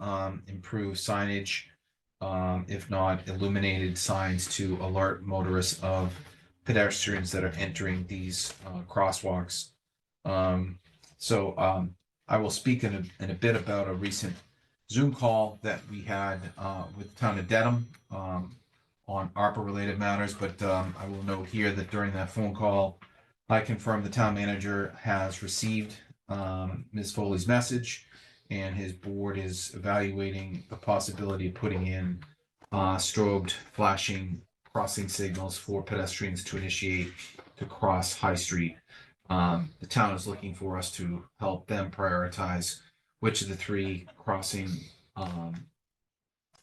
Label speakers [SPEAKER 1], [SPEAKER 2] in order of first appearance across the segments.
[SPEAKER 1] um, improve signage. Um, if not illuminated signs to alert motorists of pedestrians that are entering these, uh, crosswalks. Um, so, um, I will speak in a, in a bit about a recent Zoom call that we had, uh, with the town of Dedham, um, on ARPA-related matters, but, um, I will note here that during that phone call, I confirm the town manager has received, um, Ms. Foley's message and his board is evaluating the possibility of putting in uh, strobed flashing crossing signals for pedestrians to initiate to cross High Street. Um, the town is looking for us to help them prioritize which of the three crossing um,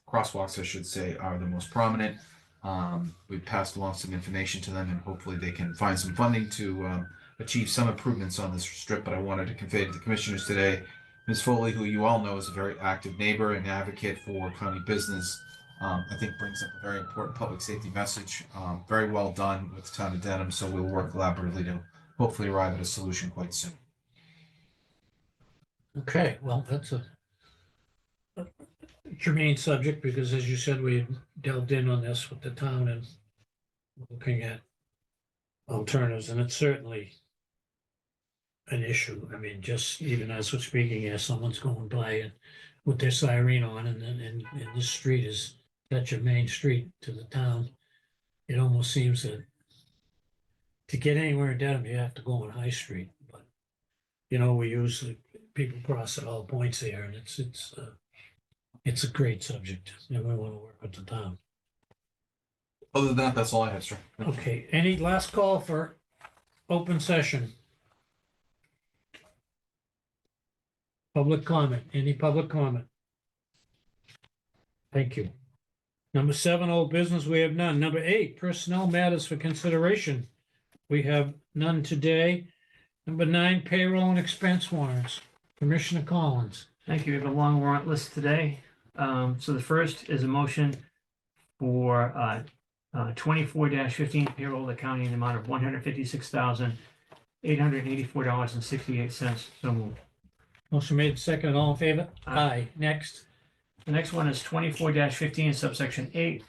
[SPEAKER 1] crosswalks, I should say, are the most prominent. Um, we passed along some information to them and hopefully they can find some funding to um, achieve some improvements on this strip. But I wanted to convey to the commissioners today Ms. Foley, who you all know is a very active neighbor and advocate for county business, um, I think brings up a very important public safety message. Um, very well done with the town of Dedham, so we'll work collaboratively to hopefully arrive at a solution quite soon.
[SPEAKER 2] Okay, well, that's a a germane subject because as you said, we delved in on this with the town and looking at alternatives and it's certainly an issue. I mean, just even as we're speaking here, someone's going by and with their siren on and then, and, and this street is such a main street to the town. It almost seems that to get anywhere in Dedham, you have to go on High Street, but you know, we use the people cross at all points there, and it's, it's, uh, it's a great subject, and we want to work with the town.
[SPEAKER 1] Other than that, that's all I have, sir.
[SPEAKER 2] Okay, any last call for open session? Public comment, any public comment? Thank you. Number seven, old business, we have none. Number eight, personnel matters for consideration. We have none today. Number nine, payroll and expense warrants. Commissioner Collins.
[SPEAKER 3] Thank you. We have a long warrant list today. Um, so the first is a motion for, uh, uh, twenty-four fifteen payroll to county in the amount of one hundred fifty-six thousand, eight hundred eighty-four dollars and sixty-eight cents. So moved.
[SPEAKER 2] Motion made second, all in favor?
[SPEAKER 3] Aye.
[SPEAKER 2] Next.
[SPEAKER 3] The next one is twenty-four fifteen subsection eight.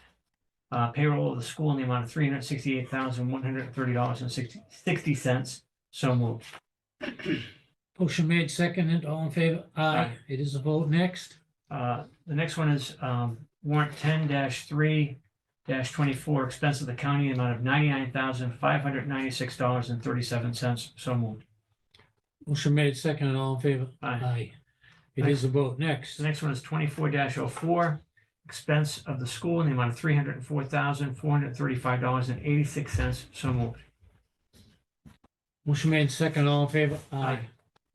[SPEAKER 3] Uh, payroll of the school in the amount of three hundred sixty-eight thousand, one hundred thirty dollars and sixty, sixty cents. So moved.
[SPEAKER 2] Motion made second, and all in favor? Aye.
[SPEAKER 3] Aye.
[SPEAKER 2] It is a vote. Next.
[SPEAKER 3] Uh, The next one is um, warrant ten three twenty-four, expense of the county, amount of ninety-nine thousand, five hundred ninety-six dollars and thirty-seven cents. So moved.
[SPEAKER 2] Motion made second, and all in favor?
[SPEAKER 3] Aye.
[SPEAKER 2] Aye. It is a vote. Next.
[SPEAKER 3] The next one is twenty-four 4 expense of the school in the amount of three hundred and four thousand, four hundred thirty-five dollars and eighty-six cents. So moved.
[SPEAKER 2] Motion made second, all in favor?
[SPEAKER 3] Aye.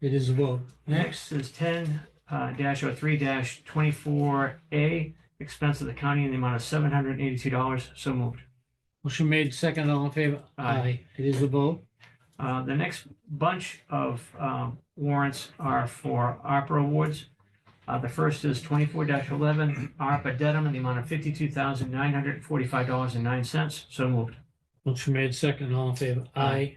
[SPEAKER 2] It is a vote. Next.
[SPEAKER 3] Next is ten dash oh three dash twenty-four A, expense of the county in the amount of seven hundred eighty-two dollars. So moved.
[SPEAKER 2] Motion made second, all in favor?
[SPEAKER 3] Aye.
[SPEAKER 2] It is a vote.
[SPEAKER 3] Uh, The next bunch of um, warrants are for ARPA awards. Uh, The first is twenty-four eleven, ARPA Dedham, in the amount of fifty-two thousand nine hundred and forty-five dollars and nine cents. So moved.
[SPEAKER 2] Motion made second, all in favor? Aye.
[SPEAKER 3] Aye.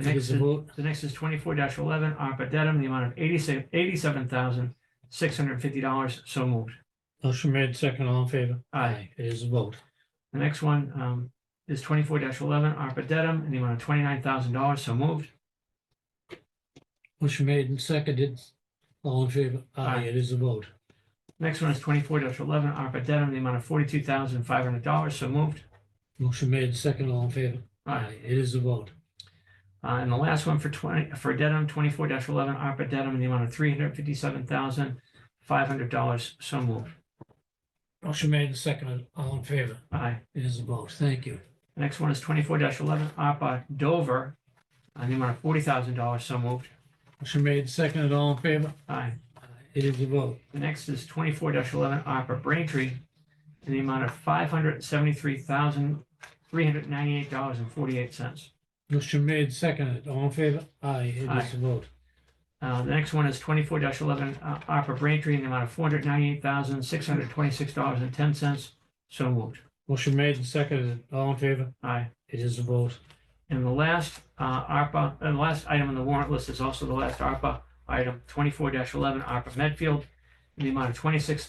[SPEAKER 3] The
[SPEAKER 2] It
[SPEAKER 3] next
[SPEAKER 2] is a
[SPEAKER 3] is,
[SPEAKER 2] vote.
[SPEAKER 3] the next is twenty-four eleven, ARPA Dedham, in the amount of eighty-six, eighty-seven thousand six hundred and fifty dollars. So moved.
[SPEAKER 2] Motion made second, all in favor?
[SPEAKER 3] Aye.
[SPEAKER 2] It is a vote.
[SPEAKER 3] The next one um, is twenty-four eleven, ARPA Dedham, in the amount of twenty-nine thousand dollars. So moved.
[SPEAKER 2] Motion made and seconded, all in favor?
[SPEAKER 3] Aye.
[SPEAKER 2] It is a vote.
[SPEAKER 3] Next one is twenty-four eleven, ARPA Dedham, in the amount of forty-two thousand five hundred dollars. So moved.
[SPEAKER 2] Motion made second, all in favor? It is a vote.
[SPEAKER 3] Uh, and the last one for twenty, for Dedham, twenty-four eleven, ARPA Dedham, in the amount of three hundred fifty-seven thousand, five hundred dollars. So moved.
[SPEAKER 2] Motion made and seconded, all in favor?
[SPEAKER 3] Aye.
[SPEAKER 2] It is a vote. Thank you.
[SPEAKER 3] The Next one is twenty-four eleven, ARPA Dover, uh, in the amount of forty thousand dollars. So moved.
[SPEAKER 2] Motion made and seconded, all in favor?
[SPEAKER 3] Aye.
[SPEAKER 2] It is a vote.
[SPEAKER 3] The next is twenty-four eleven, ARPA Braintree, in the amount of five hundred seventy-three thousand, three hundred ninety-eight dollars and forty-eight cents.
[SPEAKER 2] Motion made, seconded, all in favor? Aye, it is
[SPEAKER 3] Aye.
[SPEAKER 2] a vote.
[SPEAKER 3] Uh, the next one is twenty-four eleven, uh, ARPA Braintree, in the amount of four hundred ninety-eight thousand, six hundred twenty-six dollars and ten cents. So moved.
[SPEAKER 2] Motion made and seconded, all in favor?
[SPEAKER 3] Aye.
[SPEAKER 2] It is a vote.
[SPEAKER 3] And the last uh, ARPA, and the last item on the warrant list is also the last ARPA item, twenty-four eleven, ARPA Medfield, in the amount of twenty-six